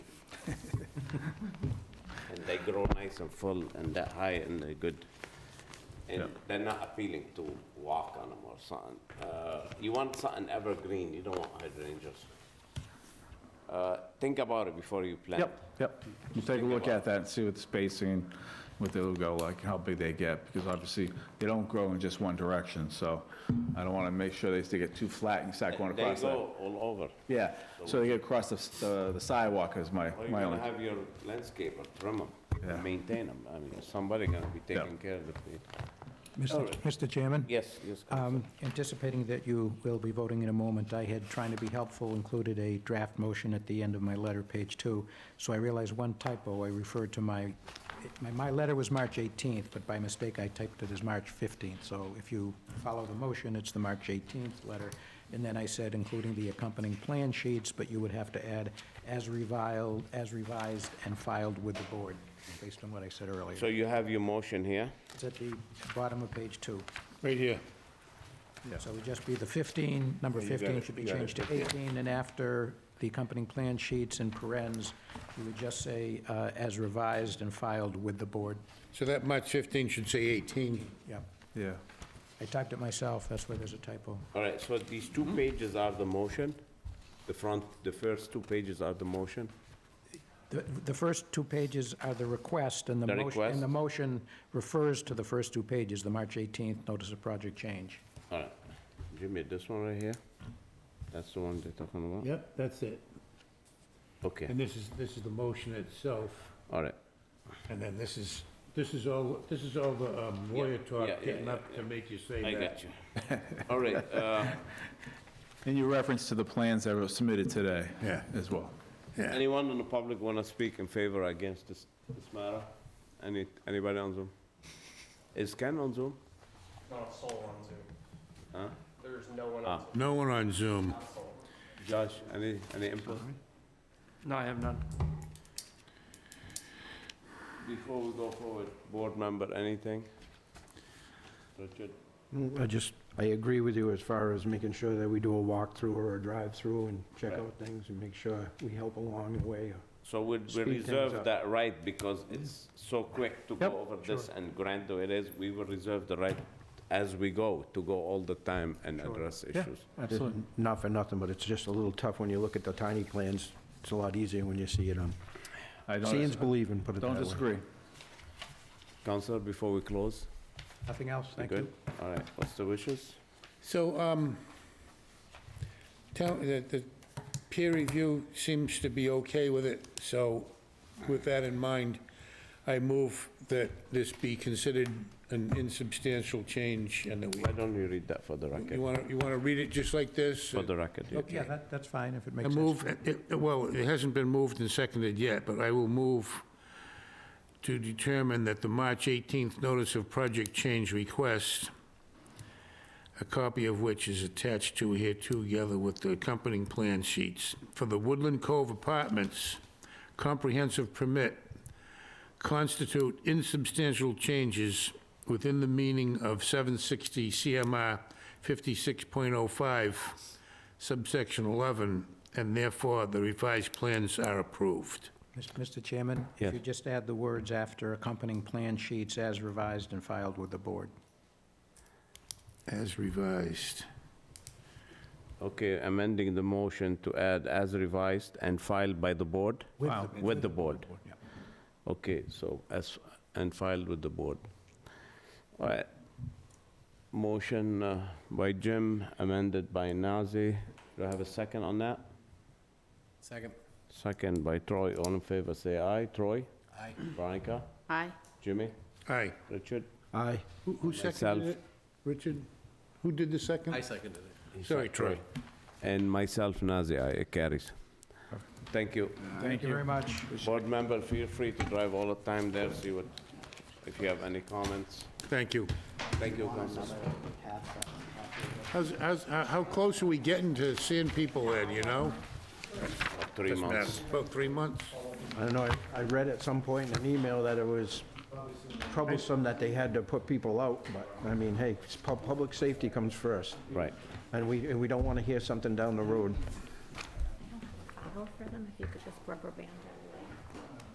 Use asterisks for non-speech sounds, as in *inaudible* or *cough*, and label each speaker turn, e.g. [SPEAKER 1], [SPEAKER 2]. [SPEAKER 1] they grow nice and full and that high and they're good. And
[SPEAKER 2] Yeah.
[SPEAKER 1] they're not appealing to walk on them or something. Uh, You want something evergreen, you don't want hydrangeas. Uh, Think about it before you plant.
[SPEAKER 2] Yep, yep. You take a look at that and see what the spacing, what they'll go like, how big they get, because obviously, they don't grow in just one direction, so I don't want to make sure they still get too flat and start going
[SPEAKER 1] They
[SPEAKER 2] across that.
[SPEAKER 1] go all over.
[SPEAKER 2] Yeah, so they get across the s- the the sidewalk is my,
[SPEAKER 1] Or you're
[SPEAKER 2] my
[SPEAKER 1] gonna
[SPEAKER 2] only,
[SPEAKER 1] have your landscaper trim
[SPEAKER 2] Yeah.
[SPEAKER 1] them, maintain them. I mean, somebody gonna be
[SPEAKER 2] Yeah.
[SPEAKER 1] taking care of the place. All
[SPEAKER 3] Mr.
[SPEAKER 1] right.
[SPEAKER 3] Mr. Chairman?
[SPEAKER 1] Yes, yes. Counselor.
[SPEAKER 3] Um, Anticipating that you will be voting in a moment, I had, trying to be helpful, included a draft motion at the end of my letter, page two. So I realized one typo. I referred to my, my, my letter was March 18th, but by mistake, I typed it as March 15th. So if you follow the motion, it's the March 18th letter. And then I said, including the accompanying plan sheets, but you would have to add, as reviled, as revised and filed with the board, based on what I said earlier.
[SPEAKER 1] So you have your motion here?
[SPEAKER 3] It's at the bottom of page two.
[SPEAKER 4] Right here.
[SPEAKER 3] So it would just be the 15, number
[SPEAKER 4] you got
[SPEAKER 3] 15
[SPEAKER 4] it,
[SPEAKER 3] should be
[SPEAKER 4] you got it,
[SPEAKER 3] changed to
[SPEAKER 4] yeah.
[SPEAKER 3] 18, and after the accompanying plan sheets and parens, you would just say, uh, as revised and filed with the board.
[SPEAKER 4] So that March 15 should say 18.
[SPEAKER 3] Yeah.
[SPEAKER 2] yeah.
[SPEAKER 3] I typed it myself, that's why there's a typo.
[SPEAKER 1] All right, so these two pages are the motion? The front, the first two pages are the motion?
[SPEAKER 3] The the first two pages are the request, and the
[SPEAKER 1] The
[SPEAKER 3] motion...
[SPEAKER 1] request?
[SPEAKER 3] And the motion refers to the first two pages, the March 18th notice of project change.
[SPEAKER 1] All right. Jimmy, this one right here? That's the one they're talking about?
[SPEAKER 4] Yep, that's it.
[SPEAKER 1] Okay,
[SPEAKER 4] And this is, this is the motion itself,
[SPEAKER 1] all right.
[SPEAKER 4] and then this is, this is all, this is all the um, lawyer talk
[SPEAKER 1] yeah, yeah,
[SPEAKER 4] getting
[SPEAKER 1] yeah,
[SPEAKER 4] up to make you say that.
[SPEAKER 1] I got you. *laughs* All right, uh,
[SPEAKER 2] And your reference to the plans that were submitted today
[SPEAKER 4] Yeah.
[SPEAKER 2] as well.
[SPEAKER 4] Yeah.
[SPEAKER 1] anyone in the public want to speak in favor or against this, this matter? Any, anybody on Zoom? Is Ken on Zoom?
[SPEAKER 5] Not a soul on Zoom.
[SPEAKER 1] Huh?
[SPEAKER 5] There's no one
[SPEAKER 1] Ah.
[SPEAKER 5] on Zoom.
[SPEAKER 4] No one on Zoom.
[SPEAKER 5] Not a soul.
[SPEAKER 1] Josh, any, any input?
[SPEAKER 5] No, I have none.
[SPEAKER 1] Before we go forward, board member, anything? Richard?
[SPEAKER 6] Mm, I just, I agree with you as far as making sure that we do a walkthrough or a drive-through and check
[SPEAKER 1] Right.
[SPEAKER 6] out things and make sure we help along the way.
[SPEAKER 1] So we we
[SPEAKER 6] Speed things
[SPEAKER 1] reserve
[SPEAKER 6] up.
[SPEAKER 1] that right because it's so quick to
[SPEAKER 6] Yep,
[SPEAKER 1] go over this and grand though it is, we will reserve the right as we go to go all the time and address issues.
[SPEAKER 2] Absolutely.
[SPEAKER 6] Not for nothing, but it's just a little tough when you look at the tiny plans. It's a lot easier when you see it on,
[SPEAKER 2] I don't-
[SPEAKER 6] seeing's believing, put it that way.
[SPEAKER 2] Don't disagree.
[SPEAKER 1] Counselor, before we close?
[SPEAKER 3] Nothing else?
[SPEAKER 1] we
[SPEAKER 3] Thank you.
[SPEAKER 1] good? All right, what's the wishes?
[SPEAKER 4] So, um, tell, the, the peer review seems to be okay with it, so with that in mind, I move that this be considered an insubstantial change and that we,
[SPEAKER 1] Why don't you read that for the
[SPEAKER 4] you
[SPEAKER 1] record?
[SPEAKER 4] wanna, you wanna read it just like this?
[SPEAKER 1] For the record, yeah.
[SPEAKER 3] Yeah, that, that's fine, if it
[SPEAKER 4] I
[SPEAKER 3] makes sense.
[SPEAKER 4] move, it- it- well, it hasn't been moved and seconded yet, but I will move to determine that the March 18th notice of project change request, a copy of which is attached to here together with the accompanying plan sheets, for the Woodland Cove Apartments comprehensive permit constitute insubstantial changes within the meaning of 760 CMR 56.05 subsection 11, and therefore the revised plans are approved.
[SPEAKER 3] Mis- Mr. Chairman,
[SPEAKER 1] Yes.
[SPEAKER 3] if you just add the words after accompanying plan sheets as revised and filed with the board.
[SPEAKER 4] As revised.
[SPEAKER 1] Okay, amending the motion to add as revised and filed by the board?
[SPEAKER 2] Wow.
[SPEAKER 1] With the board? Okay, so as, and filed with the board. All right. Motion uh, by Jim, amended by Nazi. Do I have a second on that?
[SPEAKER 5] Second.
[SPEAKER 1] Second by Troy. All in favor, say aye. Troy? Aye. Veronica?
[SPEAKER 7] Aye.
[SPEAKER 1] Jimmy?
[SPEAKER 4] Aye.
[SPEAKER 1] Richard?
[SPEAKER 6] Aye.
[SPEAKER 4] Who- Who
[SPEAKER 1] Myself.
[SPEAKER 4] seconded it? Richard? Who did the second? I seconded it. Sorry, Troy.
[SPEAKER 1] And myself, Nazi, aye. It carries. Thank you.
[SPEAKER 3] Thank you very much.
[SPEAKER 1] Board member, feel free to drive all the time there, see what, if you have any comments.
[SPEAKER 4] Thank you.
[SPEAKER 1] Thank you, Council.
[SPEAKER 4] How's, how's, how how close are we getting to seeing people in, you know?
[SPEAKER 1] Three
[SPEAKER 4] Doesn't matter.
[SPEAKER 1] months.
[SPEAKER 4] About three months?
[SPEAKER 6] I don't know, I- I read at some point in an email that it was troublesome that they had to put people out, but, I mean, hey, it's pub- public safety comes first.
[SPEAKER 1] Right.
[SPEAKER 6] And we, and we don't want to hear something down the road.
[SPEAKER 7] Go for them if you could just rubber band it.